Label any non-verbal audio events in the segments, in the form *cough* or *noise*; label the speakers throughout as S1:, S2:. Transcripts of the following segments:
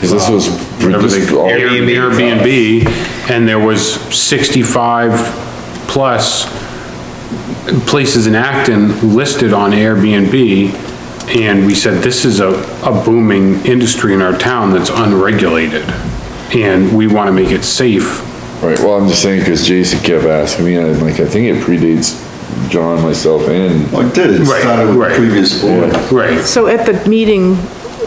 S1: Cause this was, this was all-
S2: Airbnb, and there was sixty-five plus places in Acton listed on Airbnb, and we said, this is a, a booming industry in our town that's unregulated, and we wanna make it safe.
S1: right, well, I'm just saying, cause Jason kept asking me, and I'm like, I think it predates John, myself, and
S3: Well, it did, it
S2: Right,
S3: started with
S2: right.
S3: the previous board.
S2: Right.
S4: So at the meeting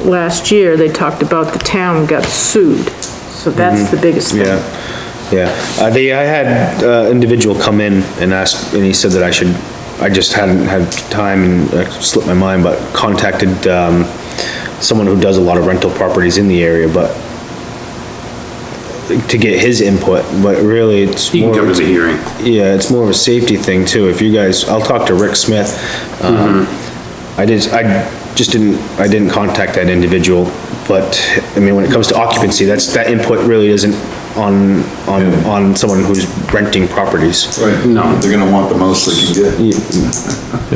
S4: last year, they talked about the town got sued, so
S3: Mm-hmm.
S4: that's the biggest thing.
S5: Yeah, yeah. Uh, they, I had, uh, individual come in and asked, and he said that I should, I just hadn't had time and uh, slipped my mind, but contacted, um, someone who does a lot of rental properties in the area, but to get his input, but really it's
S2: You can
S5: more.
S2: come to the hearing.
S5: Yeah, it's more of a safety thing too. If you guys, I'll talk to Rick Smith. Um,
S2: Mm-hmm.
S5: I did, I just didn't, I didn't contact that individual, but, I mean, when it comes to occupancy, that's, that input really isn't on, on, on someone who's renting properties.
S3: Right.
S2: No.
S3: They're gonna want the most they can get.
S1: uh,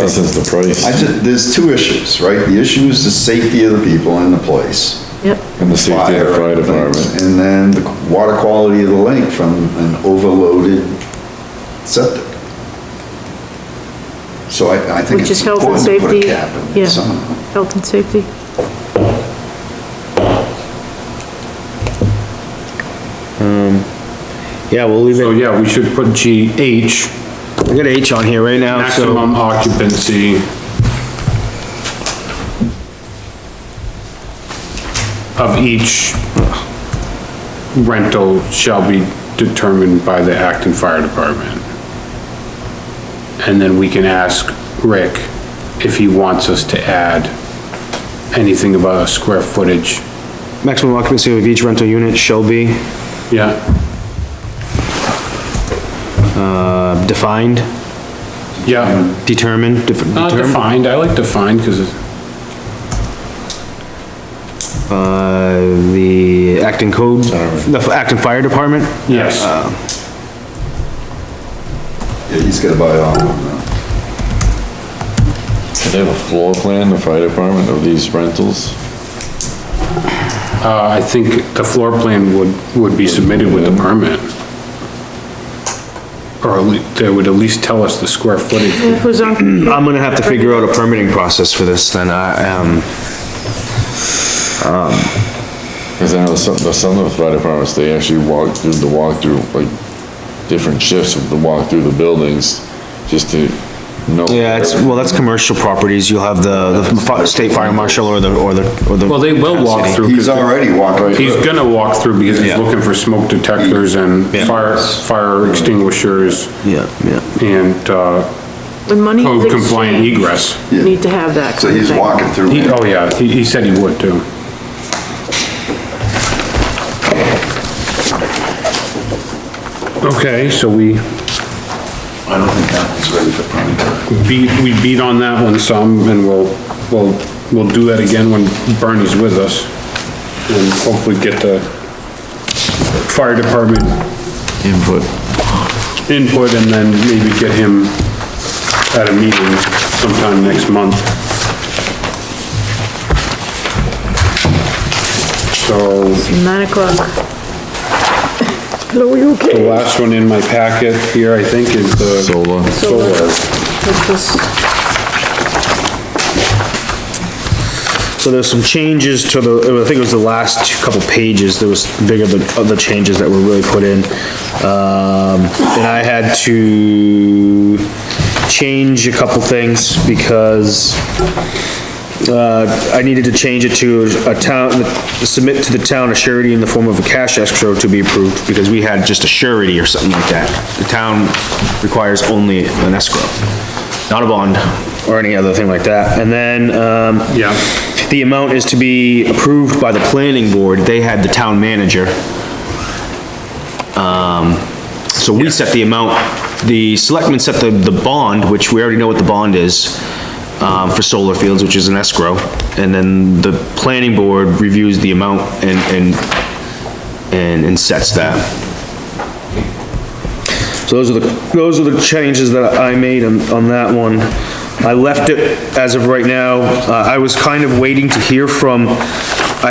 S1: lessens the
S3: I
S1: price
S3: just, there's two issues, right? The issue is the safety of the people in the place.
S4: Yep,
S1: and the safety of the fire department.
S3: And then the water quality of the lake from an overloaded septic. So I, I think
S4: which
S3: it's
S4: is health and
S3: important to put a
S4: safety,
S3: cap in
S4: yeah,
S3: it somehow.
S4: health and safety.
S5: Yeah, we'll leave
S2: So,
S5: it,
S2: yeah, we should put GH,
S5: I got H on here right now, Oh, so.
S2: maximum occupancy of each rental shall be determined by the Acton Fire Department. And then we can ask Rick if he wants us to add anything about a square footage.
S5: Maximum occupancy of each rental unit shall be
S2: Yeah,
S5: uh, defined,
S2: yeah,
S5: determined, def-
S2: not
S5: determined.
S2: defined, I like defined because it's,
S5: Uh, the Acton Code, the Acton Fire Department?
S2: yes.
S3: Yeah, he's gotta buy all of them.
S1: Do they have a floor plan, the fire department, of these rentals?
S2: Uh, I think the floor plan would, would be submitted with the permit. Or at lea- they would at least tell us the square footage.
S4: It
S3: *clears throat*
S4: was on,
S5: I'm gonna have to figure out a permitting process for this then, I, um,
S1: Cause I know some, the- some of the fire departments, they actually walk through the walkthrough, like, different shifts of the walk through the buildings, just to know.
S5: yeah, it's, well, that's commercial properties, you'll have the, the fi- state fire marshal or the, or the, or the.
S2: Well, they will walk through. 'cause
S3: He's already walked right
S2: He's
S3: through.
S2: gonna walk through because he's
S5: Yeah.
S2: looking for smoke detectors and
S5: Yeah.
S2: fire, fire extinguishers
S5: Yeah, yeah.
S2: and, uh,
S4: when money is
S2: code compliant
S4: exchanged,
S2: egress.
S4: you need to have that
S3: So
S4: kind of
S3: he's
S4: thing.
S3: walking through.
S2: He,
S3: it.
S2: oh yeah, he, he said he would too. Okay, so we
S3: I don't think that one's ready for prime
S2: beat, we beat on that one some, and we'll, we'll, we'll do that again when Bernie's with us. And hopefully get the fire department
S1: Input.
S2: input and then maybe get him at a meeting sometime next month. So,
S4: Nine o'clock. Hello, you
S2: the
S4: okay?
S2: last one in my packet here, I think, is the.
S1: Solar.
S2: Solar.
S4: This was-
S5: So there's some changes to the, I think it was the last couple pages, there was bigger the, of the changes that were really put in. Um, and I had to change a couple things because uh, I needed to change it to a town, submit to the town a surety in the form of a cash escrow to be approved, because we had just a surety or something like that. The town requires only an escrow, not a bond or any other thing like that. And then, um.
S2: Yeah.
S5: The amount is to be approved by the planning board. They had the town manager. So we set the amount, the selectmen set the, the bond, which we already know what the bond is, um, for solar fields, which is an escrow, and then the planning board reviews the amount and, and, and, and sets that. So those are the, those are the changes that I made on, on that one. I left it as of right now, uh, I was kind of waiting to hear from